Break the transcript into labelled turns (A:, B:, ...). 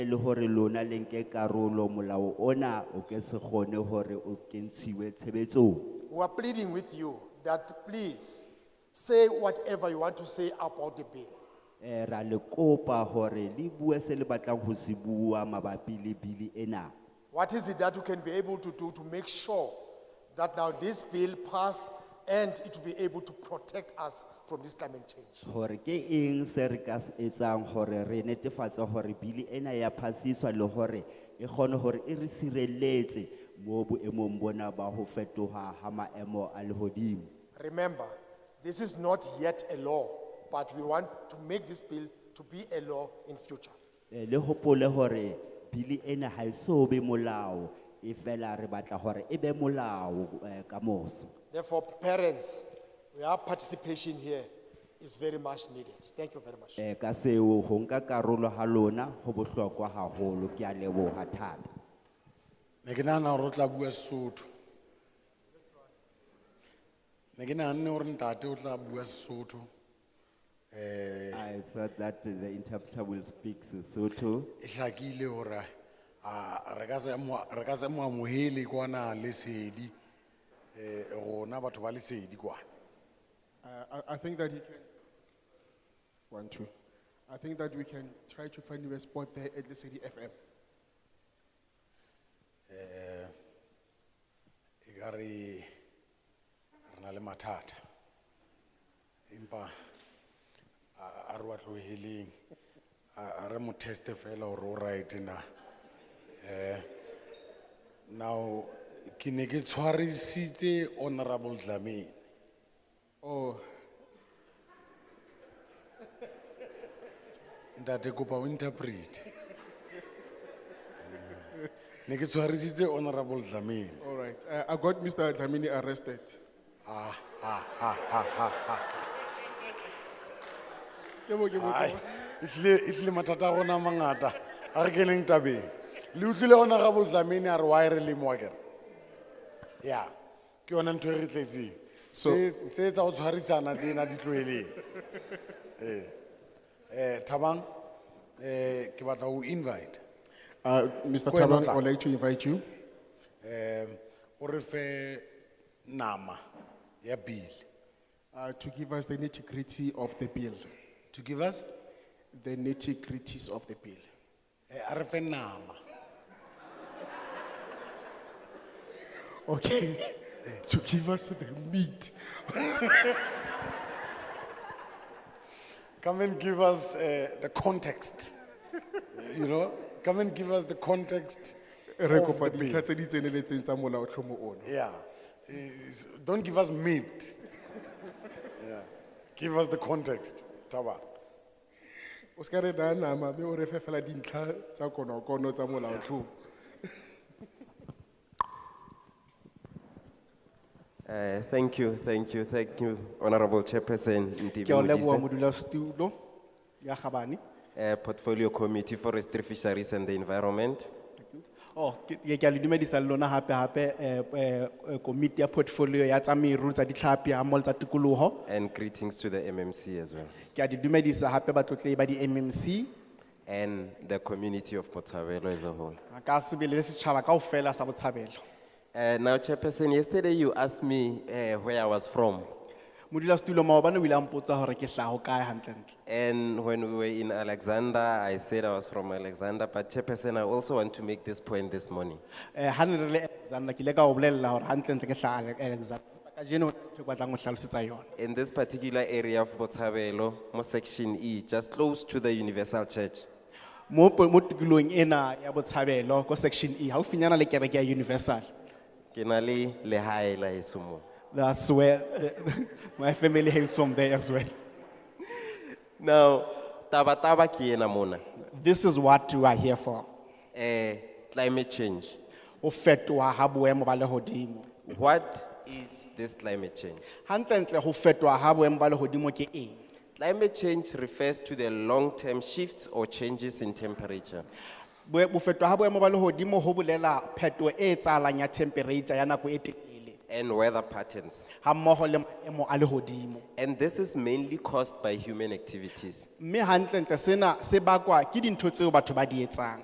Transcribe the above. A: e le hore lona le nke karolo molao ona o ke se kgone hore o kentshiwe tshebetsong
B: We are pleading with you that please say whatever you want to say about the bill.
A: Eh, ra le kopa hore le bue se le batlang ho se bua mabapi le bili ena
B: What is it that you can be able to do to make sure that now this bill pass and it will be able to protect us from this climate change?
A: hore ke eng se re ka se etsang hore re netefatse hore bili ena ya phasiswa le hore e kgone hore e re sireletse mo boemong bona ba ho fetoha ha maemo a lehodimo
B: Remember, this is not yet a law, but we want to make this bill to be a law in future.
A: Eh, le hopole hore bili ena ha e so be molao e fela re batla hore e be molao eh, ka moso
B: Therefore, parents, your participation here is very much needed. Thank you very much.
A: Eh, ka seo ho nka karolo ha lona ho bohlokwa haholo ke a leboha thata
C: Ne ke nahana hore o tla bua Sesotho. Ne ke nahanne hore ntate o tla bua Sesotho.
D: Eh.
A: I thought that the interpreter will speak Sesotho
C: E hlakile hore a re ka se mo re ka se mo amohele kwana lesedi. Eh rona batho ba lesedi kwa.
E: Uh, I, I think that he can, one, two. I think that we can try to find him a spot there at the City FM.
C: E ka re re na le mathata. Empa a a re wa tloheleng. A a re mo test fela hore o right na. Eh, Now, ki ne ki tswari site honorable Dlamini.
E: Oh,
C: Ntate kopa o interpret. Eh, Ne ki tswari site honorable Dlamini.
E: all right. Uh, I got Mr. Dlamini arrested.
C: Ah, ah, ah, ah, ah, ah.
E: Ke bo- ke bo- ke
C: Ai,
E: bo-
C: itle, itle matata ona mangata. Arkeleng tabeng. Le utlile honorable Dlamini a re wa e re le mwakere. Yeah. Ke yona ntho e re tletseng.
E: So-
C: Se se tsa o tshwarisana tsena di tlohele. Eh. Eh, Thabang eh ke batla o invite.
E: Uh, Mr.
C: Go ahead,
E: Tabang,
C: Notla.
E: I'd like to invite you.
C: O re fe nama ya bill
E: Uh, to give us the nitty gritty of the bill.
C: to give us
E: The nitty gritties of the bill.
C: eh a re fe nama.
E: Okay. to give us the meat.
C: Come and give us uh, the context. you know, come and give us the context
E: E Re
C: of
E: kopa
C: the bill.
E: dintlha tse di tseneletseng tsa molaotlhomo ono.
C: Yeah. Is- Don't give us meat. yeah. Give us the context. Taba.
E: O ska re naya nama, mme o re fe fela dintlha tsa konokono tsa molaotlhomo.
D: Eh, thank you, thank you, thank you, Honorable Chairperson
F: Ke o leboha
D: Ntivi
F: modulasetulo ya Gabane.
D: Eh, Portfolio Committee Forestry Fisheries and the Environment.
F: Oh, ke ke- ke a le dumedisa le lona hape hape eh eh eh, komiti ya portfolio ya tsa meru tsa ditlhapi ha mol tsa tikoloho.
D: And greetings to the MMC as well.
F: Ke a di dumedisa hape batlotlei ba di MMC.
D: And the community of Portabello as a whole.
F: A Ka sebele le setjhaba kaofela sa botshabelo.
D: Eh, now Chairperson, yesterday you asked me eh, where I was from.
F: Modulasetulo maobane o ile a mpotsa hore ke hlaha ho kae hantle ntle.
D: And when we were in Alexander, I said I was from Alexander, but Chairperson, I also want to make this point this morning.
F: Eh ha ne re le Alexander ke ile ka o bolella hore hantle ntle ke hlaha Ale- Alexander. Kajeno ke batlang ho hlalosetsa yona.
D: In this particular area of Botshabelo, mo section E, just close to the Universal Church.
F: Mo po- mo tikolong ena ya botshabelo ko section E haufinyana le kereke ya Universal.
D: ke na le lehae la heso moo
F: That's where the, my family hails from there as well.
D: now tabataba ke ena mona
F: This is what we are here for.
D: um climate change
F: Ho fetoha ha boemo ba lehodimo.
D: what is this climate change
F: Hantle ntle ho fetoha ha boemo ba lehodimo ke eng?
D: climate change refers to the long term shifts or changes in temperature
F: Boe- Bo fetoha ha boemo ba lehodimo ho bolela phetoho e etsahalang ya temperature ya nako e telele
D: and weather patterns
F: hammoho le maemo a lehodimo.
D: and this is mainly caused by human activities
F: Mme hantle ntle sena se bakwa ke dintho tseo batho ba di etsang.